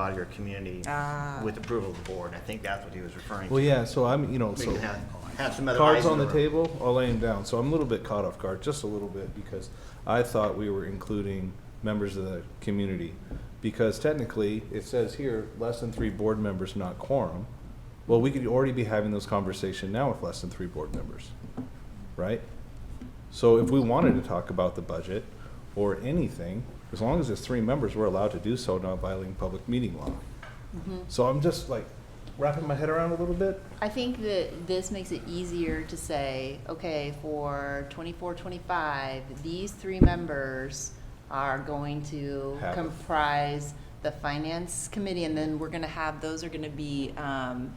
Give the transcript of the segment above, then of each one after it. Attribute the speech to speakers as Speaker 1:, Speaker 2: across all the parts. Speaker 1: out of your community
Speaker 2: Ah.
Speaker 1: with approval of the board. I think that's what he was referring to.
Speaker 3: Well, yeah, so I'm, you know,
Speaker 1: We
Speaker 3: so
Speaker 1: can have, have some other eyes
Speaker 3: cards
Speaker 1: in
Speaker 3: on the
Speaker 1: room.
Speaker 3: table, I'll lay them down. So I'm a little bit caught off guard, just a little bit, because I thought we were including members of the community. Because technically, it says here, less than three board members, not quorum. Well, we could already be having this conversation now with less than three board members, right? So if we wanted to talk about the budget or anything, as long as it's three members, we're allowed to do so, not violating public meeting law. So I'm just like wrapping my head around a little bit.
Speaker 2: I think that this makes it easier to say, okay, for twenty-four, twenty-five, these three members are going to
Speaker 3: Have it.
Speaker 2: comprise the finance committee, and then we're gonna have, those are gonna be, um,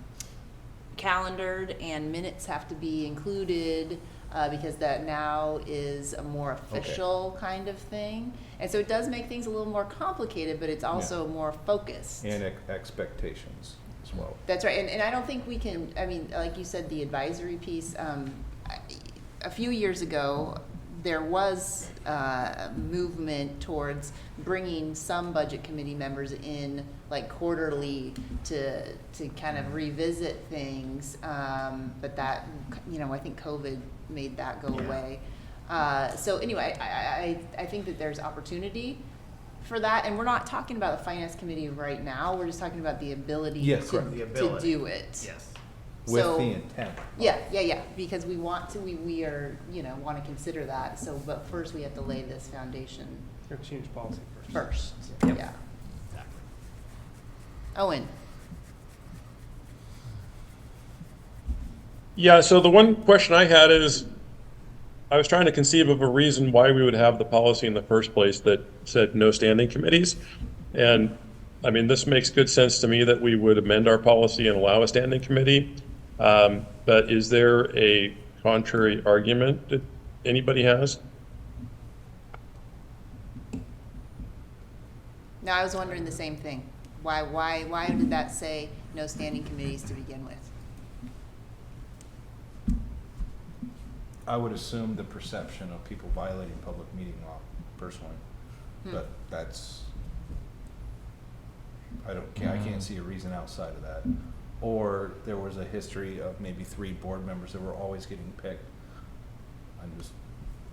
Speaker 2: calendared, and minutes have to be included, uh, because that now is a more official kind of thing. And so it does make things a little more complicated, but it's also more focused.
Speaker 3: And ex- expectations as well.
Speaker 2: That's right, and, and I don't think we can, I mean, like you said, the advisory piece, um, I- a few years ago, there was, uh, movement towards bringing some budget committee members in, like quarterly, to, to kind of revisit things, um, but that, you know, I think COVID made that go
Speaker 1: Yeah.
Speaker 2: away. Uh, so anyway, I, I, I think that there's opportunity for that, and we're not talking about the finance committee right now, we're just talking about the ability
Speaker 3: Yes,
Speaker 2: to,
Speaker 3: correct.
Speaker 1: The
Speaker 2: to
Speaker 1: ability.
Speaker 2: do it.
Speaker 1: Yes.
Speaker 3: With
Speaker 2: So-
Speaker 3: the intent.
Speaker 2: Yeah, yeah, yeah, because we want to, we, we are, you know, wanna consider that, so, but first we have to lay this foundation
Speaker 4: Gotta change policy first.
Speaker 2: first,
Speaker 1: Yep.
Speaker 2: yeah. Owen,
Speaker 5: Yeah, so the one question I had is, I was trying to conceive of a reason why we would have the policy in the first place that said no standing committees. And, I mean, this makes good sense to me that we would amend our policy and allow a standing committee. Um, But is there a contrary argument that anybody has?
Speaker 2: no, I was wondering the same thing, why, why, why did that say no standing committees to begin with?
Speaker 3: I would assume the perception of people violating public meeting law personally,
Speaker 2: Hmm.
Speaker 3: but that's, I don't, ca- I
Speaker 2: Hmm.
Speaker 3: can't see a reason outside of that. Or there was a history of maybe three board members that were always getting picked. I'm just,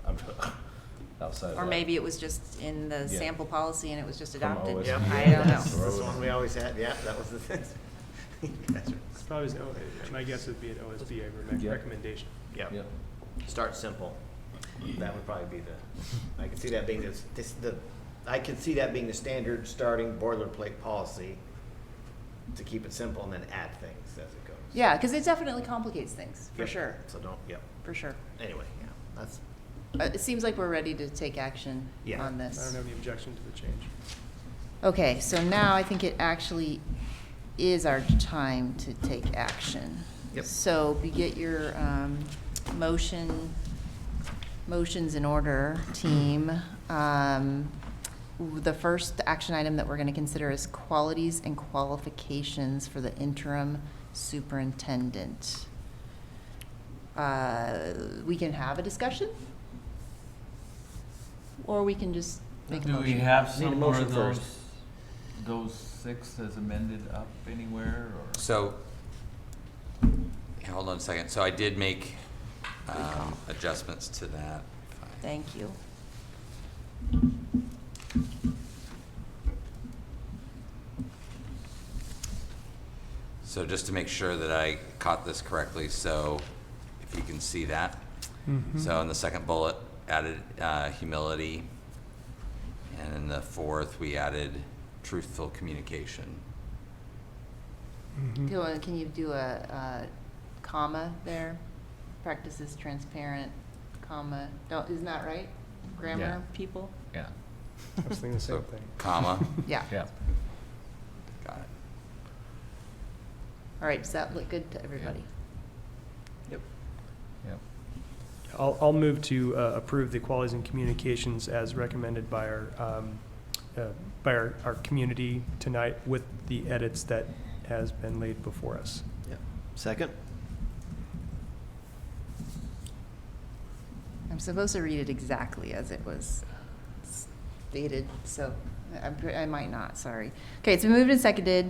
Speaker 3: I'm outside of that.
Speaker 2: Or maybe it was just in the
Speaker 3: Yeah.
Speaker 2: sample policy and it was just
Speaker 3: From
Speaker 2: adopted,
Speaker 3: OSB.
Speaker 2: I
Speaker 3: Yeah.
Speaker 2: don't know.
Speaker 1: That's the one we always had, yeah, that was the thing. You guys are-
Speaker 4: It's probably, an O- my guess would be an OSB recommend-
Speaker 3: Yeah.
Speaker 4: recommendation.
Speaker 1: Yeah,
Speaker 3: Yep.
Speaker 1: start simple. That would probably be the, I could see that being this, this, the, I could see that being the standard starting boilerplate policy to keep it simple and then add things as it goes.
Speaker 2: Yeah, cause it definitely complicates things, for
Speaker 1: Yep.
Speaker 2: sure,
Speaker 1: So don't, yep,
Speaker 2: for sure.
Speaker 1: anyway, yeah, that's,
Speaker 2: Uh, it seems like we're ready to take action
Speaker 1: Yeah.
Speaker 2: on
Speaker 4: I
Speaker 2: this.
Speaker 4: don't have any objection to the change.
Speaker 2: Okay, so now I think it actually is our time to take action.
Speaker 1: Yep.
Speaker 2: So we get your um, motion, motions in order, team. Um, w- The first action item that we're going to consider is qualities and qualifications for the interim superintendent. Uh, We can have a discussion? Or we can just make a
Speaker 6: Do
Speaker 2: motion?
Speaker 6: we have
Speaker 1: Need a
Speaker 6: some more
Speaker 1: motion
Speaker 6: of
Speaker 1: first.
Speaker 6: those, those six as amended up anywhere, or?
Speaker 7: So, yeah, hold on a second. So I did make um, adjustments to that. If I-
Speaker 2: Thank you.
Speaker 7: So just to make sure that I caught this correctly, so if you can see that.
Speaker 4: Mm-hmm.
Speaker 7: So in the second bullet, added uh, humility. And in the fourth, we added truthful communication.
Speaker 2: Do a- Can you do a, a comma there? Practices transparent, comma, don't, isn't that right? Grammar, people?
Speaker 6: Yeah,
Speaker 4: I was thinking the
Speaker 7: So
Speaker 4: same thing.
Speaker 7: Comma,
Speaker 2: Yeah,
Speaker 6: yeah.
Speaker 7: got it.
Speaker 2: all right, does that look good to everybody?
Speaker 4: I'll, I'll move to uh, approve the qualities and communications as recommended by our, um, uh, by our, our community tonight with the edits that has been laid before us.
Speaker 1: second?
Speaker 2: I'm supposed to read it exactly as it was stated, so I I might not, sorry. Okay, it's been moved and seconded